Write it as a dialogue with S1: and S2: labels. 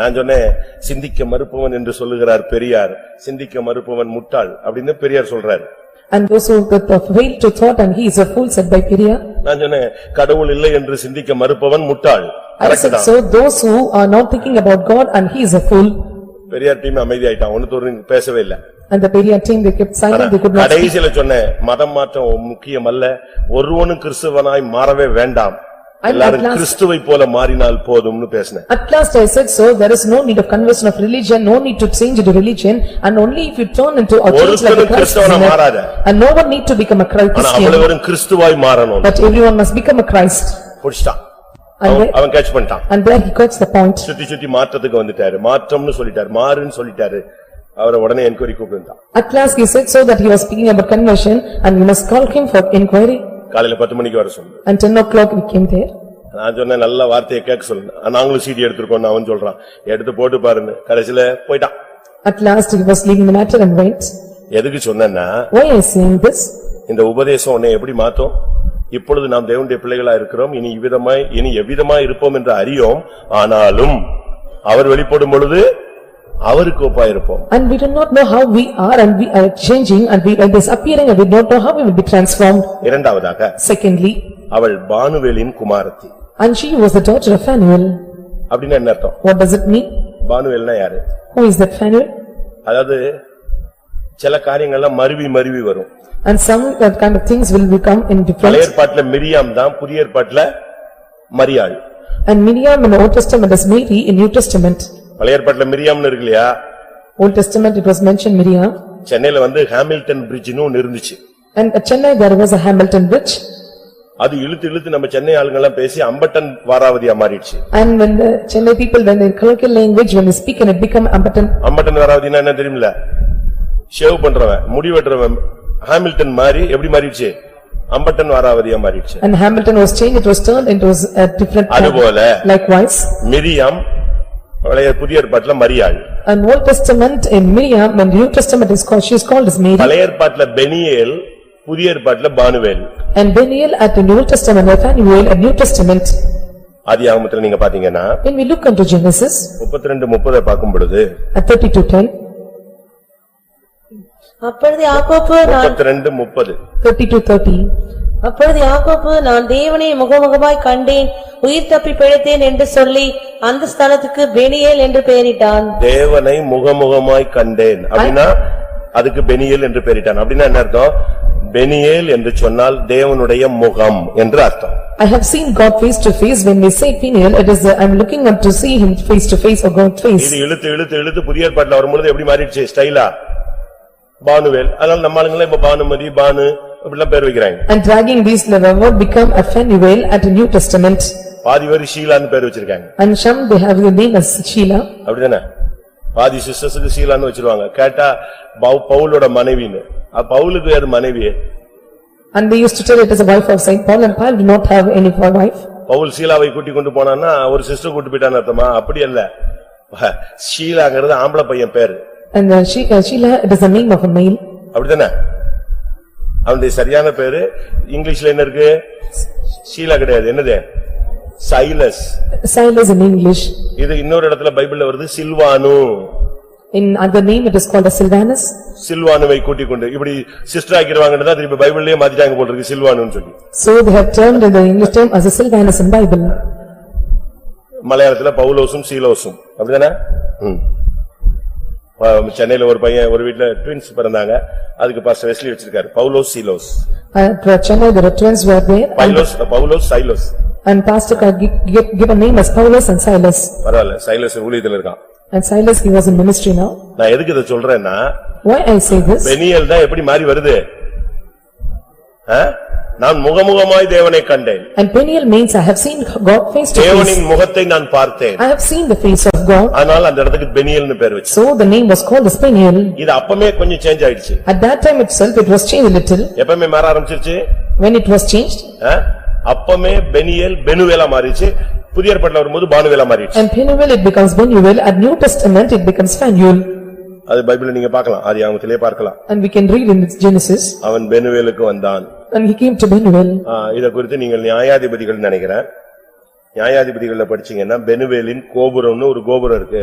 S1: நான் சொன்னேன் சிந்திக்க மறுப்பவன் என்று சொல்லுகிறார் பெரியார் சிந்திக்க மறுப்பவன் முட்டாள் அப்படின்னு பெரியார் சொல்றாரு
S2: And those who that fail to thought and he is a fool said by Peria.
S1: நான் சொன்னேன் கடவுள் இல்லை என்று சிந்திக்க மறுப்பவன் முட்டாள்
S2: I said so, those who are not thinking about God and he is a fool.
S1: Periyar team அமைதியாயிட்டான் ஒன்னு தோறு பேசவே இல்ல
S2: And the Peria team they kept silent, they could not speak.
S1: கடைசியில சொன்னேன் மதம் மாற்றம் முக்கியம் அல்ல ஒருவனும் கிறிஸ்துவனாய் மாறவே வேண்டாம்
S2: I'm at
S1: எல்லாரும்
S2: last-
S1: கிறிஸ்துவை போல மாறினால் போதும்னு பேசினேன்
S2: At last I said so, there is no need of conversion of religion, no need to change into religion and only if you turn into or change like a
S1: ஒருத்தரும்
S2: Christ
S1: கிறிஸ்தவனா
S2: sinner.
S1: மாறாத.
S2: And no one need to become a Christ-
S1: ஆனா
S2: Christian,
S1: அவ்வளவரும் கிறிஸ்துவாய் மாறணும்
S2: but everyone must become a Christ.
S1: புடிச்சிட்டான்
S2: And
S1: அவன்
S2: there-
S1: அவன் catch பண்ணிட்டான்
S2: and there he got the point.
S1: சுத்தி சுத்தி மாற்றத்துக்கு வந்துட்டாரு மாற்றம்னு சொல்லிட்டாரு மாறுன்னு சொல்லிட்டாரு அவரை உடனே என்கொயரி கூப்பிட்டுட்டான்
S2: At last he said so that he was speaking about conversion and we must call him for inquiry.
S1: காலையில பத்து மணிக்கு வர சொன்னேன்
S2: And ten o'clock we came there.
S1: நான் சொன்னேன் நல்ல வார்த்தையை கேட்க சொல்லுங்க நாங்களும் சீடி எடுத்திருக்கோம்னு அவன் சொல்றான் எடுத்து போட்டு பாருன்னு கடைசியில போயிட்டான்
S2: At last he was leaving the matter and went.
S1: எதுக்கு சொன்னேன்னா
S2: Why I saying this?
S1: இந்த உபதேசம் உன்னை எப்படி மாத்தும் இப்பொழுது நாம் தேவனுடைய பிள்ளைகளா இருக்கிறோம் இனி இவ்விதமாய் இனி எவ்விதமாய் இருப்போம் என்று அறியோம் ஆனாலும் அவர் வெளிப்படும் பொழுது அவருக்கு ஒப்பா இருப்போம்
S2: And we do not know how we are and we are changing and we are disappearing and we don't know how we will be transformed.
S1: இரண்டாவதாக
S2: Secondly,
S1: அவள் பானுவேலின் குமாரத்தி
S2: and she was the daughter of Phanuel.
S1: அப்படின்னு என்ன அர்த்தம்
S2: What does it mean?
S1: பானுவேல்னா யாரு
S2: Who is that Phanuel?
S1: அதாவது சில காரியங்கள்லாம் மருவி மருவி வரும்
S2: And some that kind of things will become in
S1: பழைய
S2: different.
S1: ஏற்பாட்டுல மிரியாம் தான் புதிய ஏற்பாட்டுல மரியாள்
S2: And Miriam in the Old Testament is Mary in New Testament.
S1: பழைய ஏற்பாட்டுல மிரியாம்னு இருக்கு இல்லையா
S2: Old Testament it was mentioned Miriam.
S1: சென்னையில வந்து ஹாமில்டன் பிரிட்ஜ்னு ஒன்னு இருந்துச்சு
S2: And at Chennai, there was a Hamilton bridge
S1: அது இழுத்து இழுத்து நம்ம சென்னை ஆளுங்கெல்லாம் பேசி அம்பட்டன் வாராவதியா மாறிடுச்சு
S2: and when the Chennai people, when they colloquial language, when they speak and it become Ambatan
S1: அம்பட்டன் வாராவதினா என்ன தெரியுமில்ல ஷேவ் பண்றவன் முடி வெட்டுறவன் ஹாமில்டன் மாறி எப்படி மாறிடுச்சு அம்பட்டன் வாராவதியா மாறிடுச்சு
S2: and Hamilton was changed, it was turned into a different.
S1: அதுபோல
S2: Likewise,
S1: மிரியாம் பழைய புதிய ஏற்பாட்டுல மரியாள்
S2: an Old Testament in Miriam, when New Testament is called, she is called as Mary
S1: பழைய ஏற்பாட்டுல பெனியேல் புதிய ஏற்பாட்டுல பானுவேல்
S2: and Daniel at the New Testament, Nathaniel at New Testament.
S1: ஆதியாகமத்துல நீங்க பாத்தீங்கன்னா
S2: When we look into Genesis
S1: முப்பத்தி ரெண்டு முப்பதை பார்க்கும் பொழுது
S2: at thirty-two ten,
S3: அப்பொழுது யாக்கோப்பு நான்
S1: முப்பத்தி ரெண்டு முப்பது
S2: thirty-two thirty,
S3: அப்பொழுது யாக்கோப்பு நான் தேவனை முகமுகமாய் கண்டேன் உயிர் தப்பி பிழைத்தேன் என்று சொல்லி அந்த ஸ்தலத்துக்கு பெனியேல் என்று பெயரிட்டான்
S1: தேவனை முகமுகமாய் கண்டேன் அப்படின்னா அதுக்கு பெனியேல் என்று பெயரிட்டான் அப்படின்னா என்ன அர்த்தம் பெனியேல் என்று சொன்னால் தேவனுடைய முகம் என்று அர்த்தம்
S2: I have seen God face to face, when we say Peniel, it is, the- I am looking up to see him face to face or God face.
S1: இது இழுத்து இழுத்து இழுத்து புதிய ஏற்பாட்டுல வரும்பொழுது எப்படி மாறிடுச்சு ஸ்டைலா பானுவேல் அதனால நம்ம ஆளுங்களே இப்ப பானுமதி பானு இப்படிலாம் பேர் வைக்கிறாங்க
S2: And dragging these leather would become a Phanuel at the New Testament.
S1: பாதி பேர் ஷீலான்னு பேர் வச்சிருக்காங்க
S2: And some they have the name as Sheila.
S1: அப்படிதானே பாதி சிஸ்டர்ஸுக்கு ஷீலான்னு வச்சிருவாங்க கேட்டா பவு- பவுலோட மனைவின்னு அப்ப பவுலுக்கு யாரு மனைவி
S2: And they used to tell it as a wife of Saint Paul and Paul did not have any wife.
S1: Pavul சீலாவை கூட்டிக் கொண்டு போனான்னா ஒரு சிஸ்டர் கூட்டி போயிட்டான்னு அர்த்தமா அப்படி அல்ல ஷீலாங்கிறது ஆம்பளை பையன் பேரு
S2: And uh, she- uh, Sheila, it is the name of a male.
S1: அப்படிதானே அவனுடைய சரியான பேரு இங்கிலீஷ்ல என்ன இருக்கு ஷீலா கிடையாது என்னது சைலஸ்
S2: Silas in English.
S1: இது இன்னொரு இடத்துல பைபிள்ல வருது சில்வானு
S2: In other name, it is called as Sylvanus.
S1: சில்வானுவை கூட்டிக் கொண்டு இப்படி சிஸ்டர் ஆக்கிடுவாங்கன்னு தான் திருப்பி பைபிள்லயே மாத்திட்டாங்க போல இருக்கு சில்வானுன்னு சொல்லி
S2: So they have termed in the English term as a Sylvanus in Bible.
S1: மலையாளத்துல பவுலோசும் சீலோசும் அப்படிதானே ம். ஆ, சென்னையில ஒரு பையன் ஒரு வீட்ல ட்வின்ஸ் பிறந்தாங்க அதுக்கு பாஸ்டர் வெஸ்லி வச்சிருக்காரு Paulose சீலோஸ்
S2: At uh, Chennai, the twins were there and-
S1: பைலோஸ் Paulose Sailoz
S2: and pastor could gi- gi- give a name as Paulus and Silas.
S1: பரவாயில்ல சைலோஸ் ஊழியத்துல இருக்கான்
S2: And Silas, he was in ministry now.
S1: நான் எதுக்கு இதை சொல்றேன்னா
S2: Why I say this?
S1: Peniel தான் எப்படி மாறி வருது ஆ? நான் முகமுகமாய் தேவனை கண்டேன்
S2: And Peniel means I have seen God face to face.
S1: தேவனின் முகத்தை நான் பார்த்தேன்
S2: I have seen the face of God.
S1: ஆனால் அந்த இடத்துக்கு பெனியல்னு பேர் வச்சு
S2: So the name was called as Peniel.
S1: இது அப்பமே கொஞ்சம் சேஞ்ச் ஆயிடுச்சு
S2: At that time itself, it was changed a little.
S1: எப்பமே மாற ஆரம்பிச்சிருச்சு
S2: When it was changed,
S1: ஆ? அப்பமே பெனியல் பெனுவேலா மாறிச்சு புதிய ஏற்பாட்டுல வரும்போது பானுவேலா மாறிடுச்சு
S2: and Peniel it becomes Benuel, at New Testament it becomes Phanuel.
S1: அது பைபிள்ல நீங்க பார்க்கலாம் அது அவங்கத்திலே பார்க்கலாம்
S2: And we can read in its Genesis,
S1: அவன் பெனுவேலுக்கு வந்தான்
S2: and he came to Benuel.
S1: ஆ, இத குறித்து நீங்கள் நியாயாதிபதிகள் நினைக்கிறேன் நியாயாதிபதிகள்ல படிச்சீங்கன்னா பெனுவேலின் கோபுரம்னு ஒரு கோபுரம் இருக்கு